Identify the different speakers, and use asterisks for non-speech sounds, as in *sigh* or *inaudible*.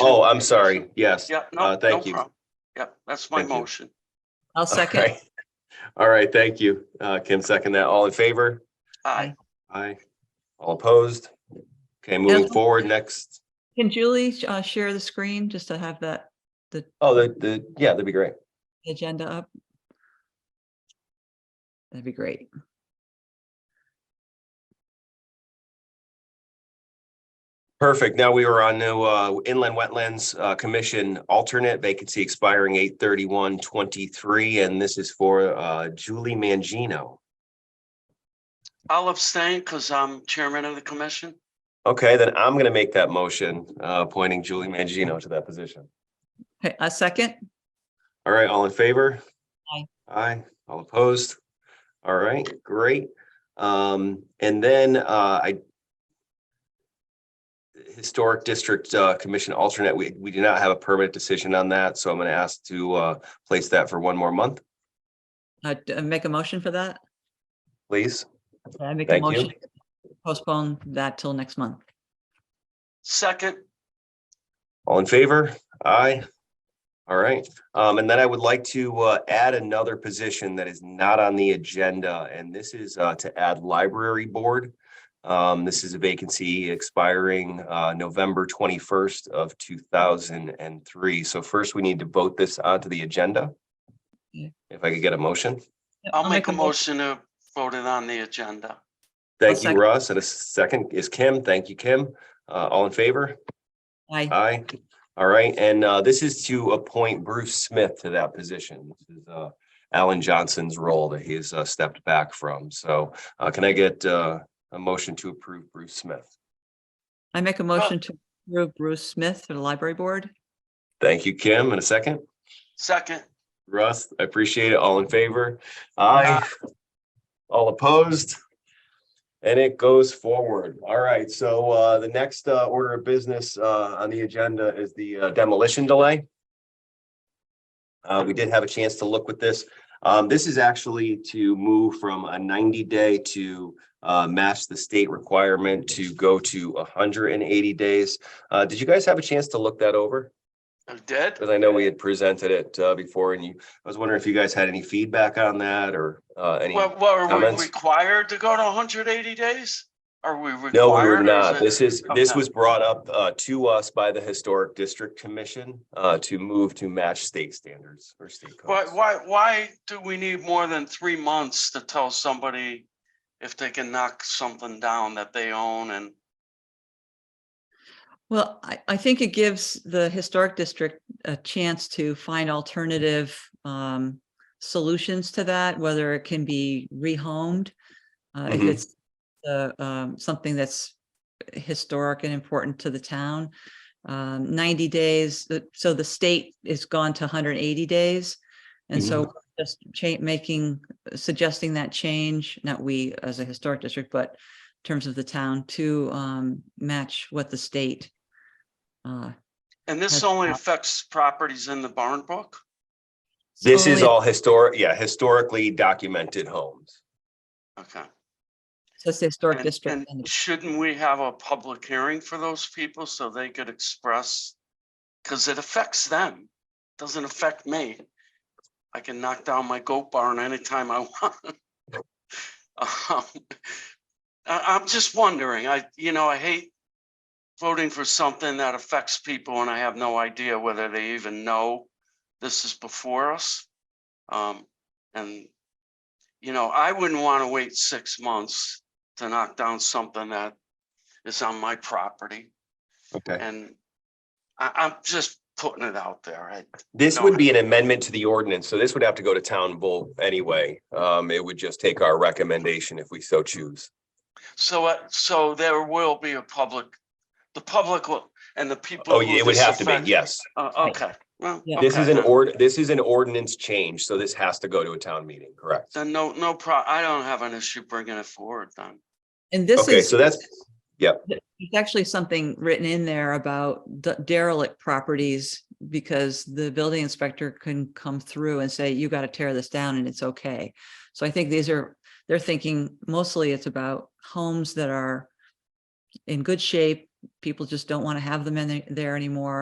Speaker 1: Oh, I'm sorry. Yes.
Speaker 2: Yeah, no,
Speaker 1: Uh,
Speaker 2: no
Speaker 1: thank you.
Speaker 2: problem. Yeah, that's my
Speaker 1: Thank you.
Speaker 2: motion.
Speaker 3: I'll second.
Speaker 1: Alright. All right, thank you. Uh, Kim, second that. All in favor?
Speaker 2: Aye.
Speaker 1: Aye. All opposed? Okay, moving
Speaker 3: Ellen?
Speaker 1: forward, next.
Speaker 3: Can Julie uh, share the screen just to have that
Speaker 1: Oh, the, the, yeah, that'd be great.
Speaker 3: agenda up? That'd be great.
Speaker 1: Perfect. Now we were on the uh, Inland Wetlands uh, Commission alternate vacancy expiring 831-23, and this is for uh, Julie Mangino.
Speaker 2: I'll abstain because I'm chairman of the commission.
Speaker 1: Okay, then I'm gonna make that motion, uh, appointing Julie Mangino to that position.
Speaker 3: Okay, A second?
Speaker 1: All right, all in favor?
Speaker 3: Aye.
Speaker 1: Aye, all opposed? All right, great. Um, and then, uh, I Historic District, uh, Commission alternate, we, we do not have a permanent decision on that, so I'm gonna ask to, uh, place that for one more month,
Speaker 3: Uh, d- uh, Make a motion for that?
Speaker 1: please.
Speaker 3: Okay, I make a
Speaker 1: Thank you.
Speaker 3: motion. to Postpone that till next month.
Speaker 2: Second,
Speaker 1: All in favor? Aye. All right, um, and then I would like to, uh, add another position that is not on the agenda, and this is, uh, to add library board. Um, this is a vacancy expiring, uh, November twenty-first of two thousand and three. So first, we need to vote this onto the agenda.
Speaker 3: Yeah.
Speaker 1: If I could get a motion.
Speaker 3: Yep,
Speaker 2: I'll make a motion to vote it on the agenda.
Speaker 1: Thank you,
Speaker 3: second.
Speaker 1: Russ, and a second is Kim. Thank you, Kim. Uh, all in favor?
Speaker 3: Aye.
Speaker 1: Aye. All right, and uh, this is to appoint Bruce Smith to that position. This is uh, Alan Johnson's role that he's uh, stepped back from. So uh, can I get uh, a motion to approve Bruce Smith?
Speaker 3: I
Speaker 2: Uh,
Speaker 3: make a motion to approve Bruce Smith for the library board.
Speaker 1: Thank you, Kim. In a second,
Speaker 2: Second,
Speaker 1: Russ, I appreciate it. All in favor? Aye. All opposed? And it goes forward. All right, so uh, the next uh, order of business uh, on the agenda is the uh, demolition delay. Uh, we did have a chance to look with this. Um, this is actually to move from a ninety day to uh, match the state requirement to go to hundred and eighty days. Uh, did you guys have a chance to look that over?
Speaker 2: I did.
Speaker 1: Because I know we had presented it uh, before and you, I was wondering if you guys had any feedback on that or uh, any.
Speaker 2: Well, well, are
Speaker 1: comments?
Speaker 2: we required to go to hundred eighty days? Are we required?
Speaker 1: No, we
Speaker 2: or
Speaker 1: were
Speaker 2: is
Speaker 1: not.
Speaker 2: it-
Speaker 1: This is, this
Speaker 2: Okay.
Speaker 1: was brought up uh, to us by the Historic District Commission uh, to move to match state standards or state
Speaker 2: Why,
Speaker 1: codes.
Speaker 2: why, why do we need more than three months to tell somebody if they can knock something down that they own and
Speaker 3: Well, I, I think it gives the historic district a chance to find alternative um, solutions to that, whether it can be rehomed. uh, If
Speaker 1: Mhm.
Speaker 3: it's uh, um, something that's historic and important to the town. Um, 90 days, uh, so the state is gone to 180 days. And
Speaker 1: Mm-hmm.
Speaker 3: so just cha- making, suggesting that change, not we as a historic district, but in terms of the town to um, match what the state. uh,
Speaker 2: And this
Speaker 3: That's
Speaker 2: only
Speaker 3: not-
Speaker 2: affects properties in the barn book?
Speaker 1: This is
Speaker 3: only-
Speaker 1: all historic, yeah, historically documented homes.
Speaker 2: Okay.
Speaker 3: so it's the historic
Speaker 2: And-
Speaker 3: district.
Speaker 2: and
Speaker 3: and-
Speaker 2: Shouldn't we have a public hearing for those people so they could express? Because it affects them, doesn't affect me. I can knock down my goat barn anytime I *laughs* want. Um, I, I'm just wondering, I, you know, I hate voting for something that affects people and I have no idea whether they even know this is before us. Um, and, you know, I wouldn't want to wait six months to knock down something that is on my property
Speaker 1: Okay.
Speaker 2: and I, I'm just putting it out there. I,
Speaker 1: This
Speaker 2: No.
Speaker 1: would be an amendment to the ordinance, so this would have to go to town vote anyway. Um, It would just take our recommendation if we so choose.
Speaker 2: so, uh, so there will be a public, the public will, and the people.
Speaker 1: Oh,
Speaker 2: who
Speaker 1: it would
Speaker 2: this
Speaker 1: have to be,
Speaker 2: affect-
Speaker 1: yes.
Speaker 2: Uh, okay, well.
Speaker 3: Yeah.
Speaker 1: This is
Speaker 2: okay.
Speaker 1: an ord, this is an ordinance change, so this has to go to a town meeting, correct?
Speaker 2: Then no, no pro, I don't have an issue bringing it forward then.
Speaker 3: And this
Speaker 1: Okay,
Speaker 3: is,
Speaker 1: so that's,
Speaker 3: there's actually something written in there about d- derelict properties because the building inspector can come through and say, you got to tear this down and it's okay. So I think these are, they're thinking mostly it's about homes that are in good shape. People just don't want to have them in the- there anymore